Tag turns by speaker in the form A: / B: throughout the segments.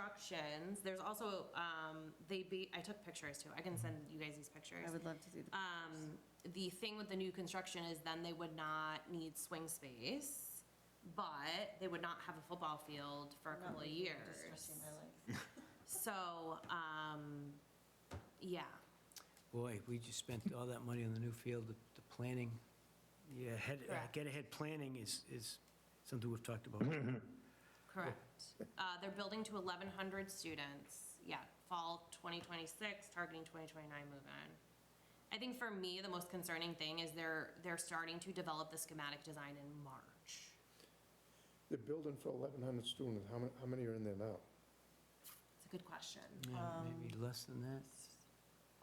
A: constructions, there's also, um, they be, I took pictures too, I can send you guys these pictures.
B: I would love to see
C: Uh,
B: the,
A: Um, the thing with the new construction is then they would not need swing space, but they would not have a football field for a couple of years. So, um, yeah,
D: Boy, we just spent all that money on the new field, the the planning, yeah, head, uh,
A: Correct.
D: get ahead planning is, is something we've talked about.
A: correct. Uh, they're building to eleven hundred students, yeah, fall twenty twenty-six, targeting twenty twenty-nine move-in. I think for me, the most concerning thing is they're, they're starting to develop the schematic design in March.
E: They're building for 1,100 students, how many, how many are in there now?
A: It's a good question.
D: Yeah, Maybe less than that.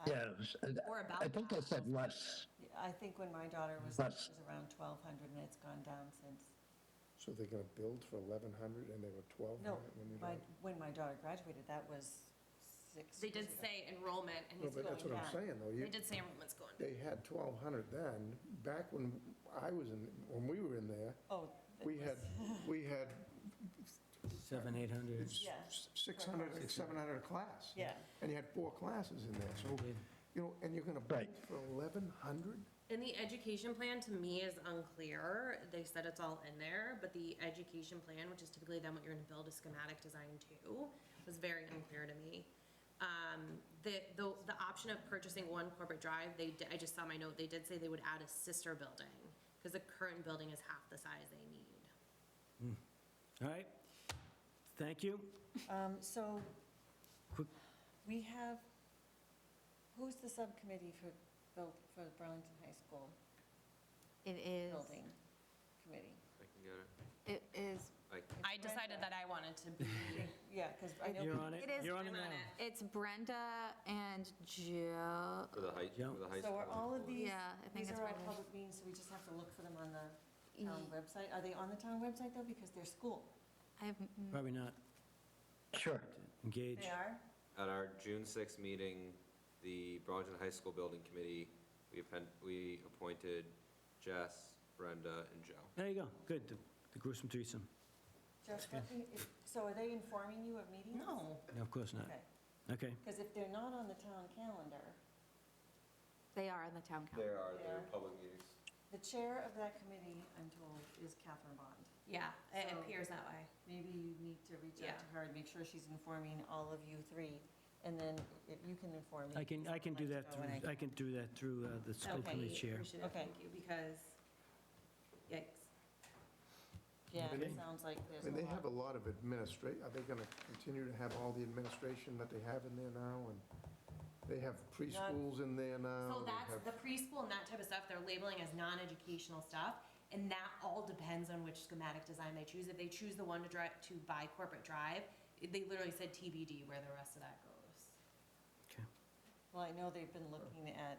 F: Yeah, it was- I-
A: Or
F: I
A: about
F: think I
A: that.
F: said less.
C: I think when my daughter was, it was around 1,200 and it's gone down since.
E: So they're going to build for 1,100 and they were 1,200
C: No,
E: when you...
C: my,
E: done?
C: when my daughter graduated, that was six.
A: They did
C: years ago.
A: say enrollment and
E: No,
A: it's
E: but
A: going
E: that's what I'm
A: down.
E: saying, though.
A: They
E: You-
A: did say enrollment's going down.
E: They had 1,200 then, back when I was in, when we were in there,
C: Oh. that
E: we
C: was-
E: had, we had
D: Seven, eight hundred.
E: s-
C: Yeah.
E: s- 600, 700 a class.
C: Yeah.
E: And you had four classes in there, so, you know, and you're going to build
F: Right.
E: for 1,100?
A: And the education plan to me is unclear. They said it's all in there, but the education plan, which is typically then what you're gonna build a schematic design to, was very unclear to me. Um, the, the, the option of purchasing one corporate drive, they, di- I just saw my note, they did say they would add a sister building, because the current building is half the size they need.
D: All right, thank you.
C: Um, So
D: Quick-
C: we have, who's the subcommittee for, buil- for Burlington High School
B: it is,
C: Building Committee?
G: I can get it.
B: it is,
A: I decided that I wanted to be.
C: Yeah, because I know.
D: You're on it,
B: It is-
D: you're on it
A: I'm on
D: now.
B: it's Brenda and Joe,
G: For the high,
D: Yeah.
G: for the high
C: So
G: school.
C: are all of these,
B: yeah, I think
C: these
B: it's
C: are all
B: Brenda.
C: public meetings, so we just have to look for them on the
B: E.
C: town website? Are they on the town website though? Because they're school.
B: I have,
D: Probably not
F: Sure.
D: engaged.
C: They are?
G: At our June sixth meeting, the Burlington High School Building Committee, we append, we appointed Jess, Brenda, and Joe.
D: There you go, good, the the gruesome threesome.
C: Jeff, let me- if- so are they informing you of meetings?
A: No.
D: No, of course not.
C: Okay,
D: Okay,
C: because if they're not on the town calendar,
B: they are on the town council.
G: There are, there are
C: There.
G: public meetings.
C: the chair of that committee, I'm told, is Catherine Bond.
A: Yeah, it
C: So-
A: appears that way.
C: Maybe you need to reach out to
A: Yeah.
C: her and make sure she's informing all of you three, and then if you can inform me.
D: I can, I can do
C: Like
D: that
C: to go when
D: through, I can do that through uh, the school
A: Okay,
D: committee chair.
A: appreciate it.
C: Okay.
A: Thank you, because, yikes.
C: Yeah,
E: Okay.
C: it sounds like there's
E: I
C: a
E: mean, they have a
C: lot.
E: lot of administration, are they going to continue to have all the administration that they have in there now? And they have preschools in there now.
A: So
E: they
A: that's,
E: have-
A: the preschool and that type of stuff, they're labeling as non-educational stuff, and that all depends on which schematic design they choose. If they choose the one to drive, to buy corporate drive, it- they literally said TBD where the rest of that goes.
C: Well, I know they've been looking at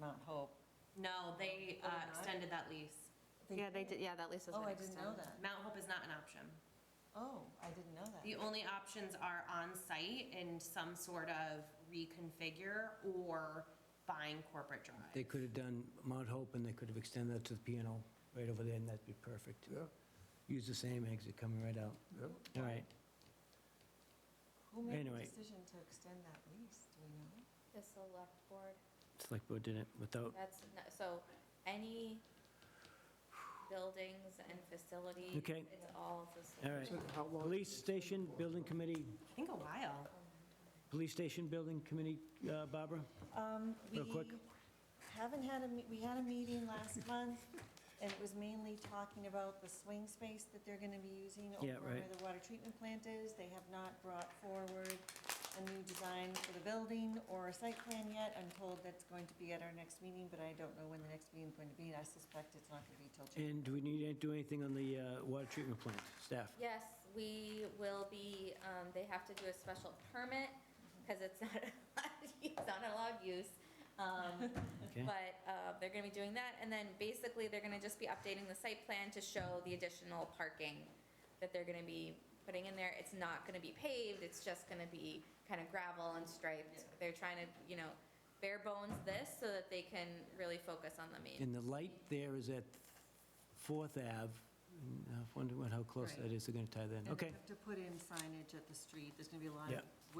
C: Mount Hope.
A: No, they uh,
C: Oh, not?
A: extended that lease.
B: Yeah, they did, yeah, that lease has
C: Oh,
B: been
C: I didn't
B: extended.
C: know that.
A: Mount Hope is not an option.
C: Oh, I didn't know that.
A: The only options are on-site and some sort of reconfigure or buying corporate
D: They
A: drive.
D: could have done Mount Hope, and they could have extended that to the piano right over there, and that'd be perfect.
E: Yeah,
D: Use the same exit coming right out.
E: yeah.
D: All right,
C: Who made the
D: anyway.
C: decision to extend that lease, do we know?
B: The select board,
D: select board did it without,
B: that's, so any buildings and facilities,
D: Okay.
B: it's all
D: all right.
E: So how long-
D: Police station, building committee,
A: I think a while.
D: police station, building committee, uh, Barbara?
C: Um, we
D: Real quick.
C: haven't had a, me- we had a meeting last month, and it was mainly talking about the swing space that they're gonna be using over
D: Yeah,
C: where
D: right.
C: the water treatment plant is. They have not brought forward a new design for the building or a site plan yet. I'm told that's going to be at our next meeting, but I don't know when the next meeting's going to be, and I suspect it's not gonna be till June.
D: And do we need to do anything on the uh, water treatment plant, staff?
H: Yes, we will be, um, they have to do a special permit, because it's not, it's not an allowed use. Um,
D: Okay.
H: But uh, they're gonna be doing that, and then basically, they're gonna just be updating the site plan to show the additional parking that they're gonna be putting in there. It's not gonna be paved, it's just gonna be kind of gravel and striped. They're trying to, you know, bare bones this, so that they can really focus on the main.
D: And the light there is at Fourth Ave, And I wonder how close
C: Right.
D: that is, they're going to tie that in,
C: And they
D: okay.
C: have To put in signage at the street, there's gonna be a lot
D: Yeah.
C: of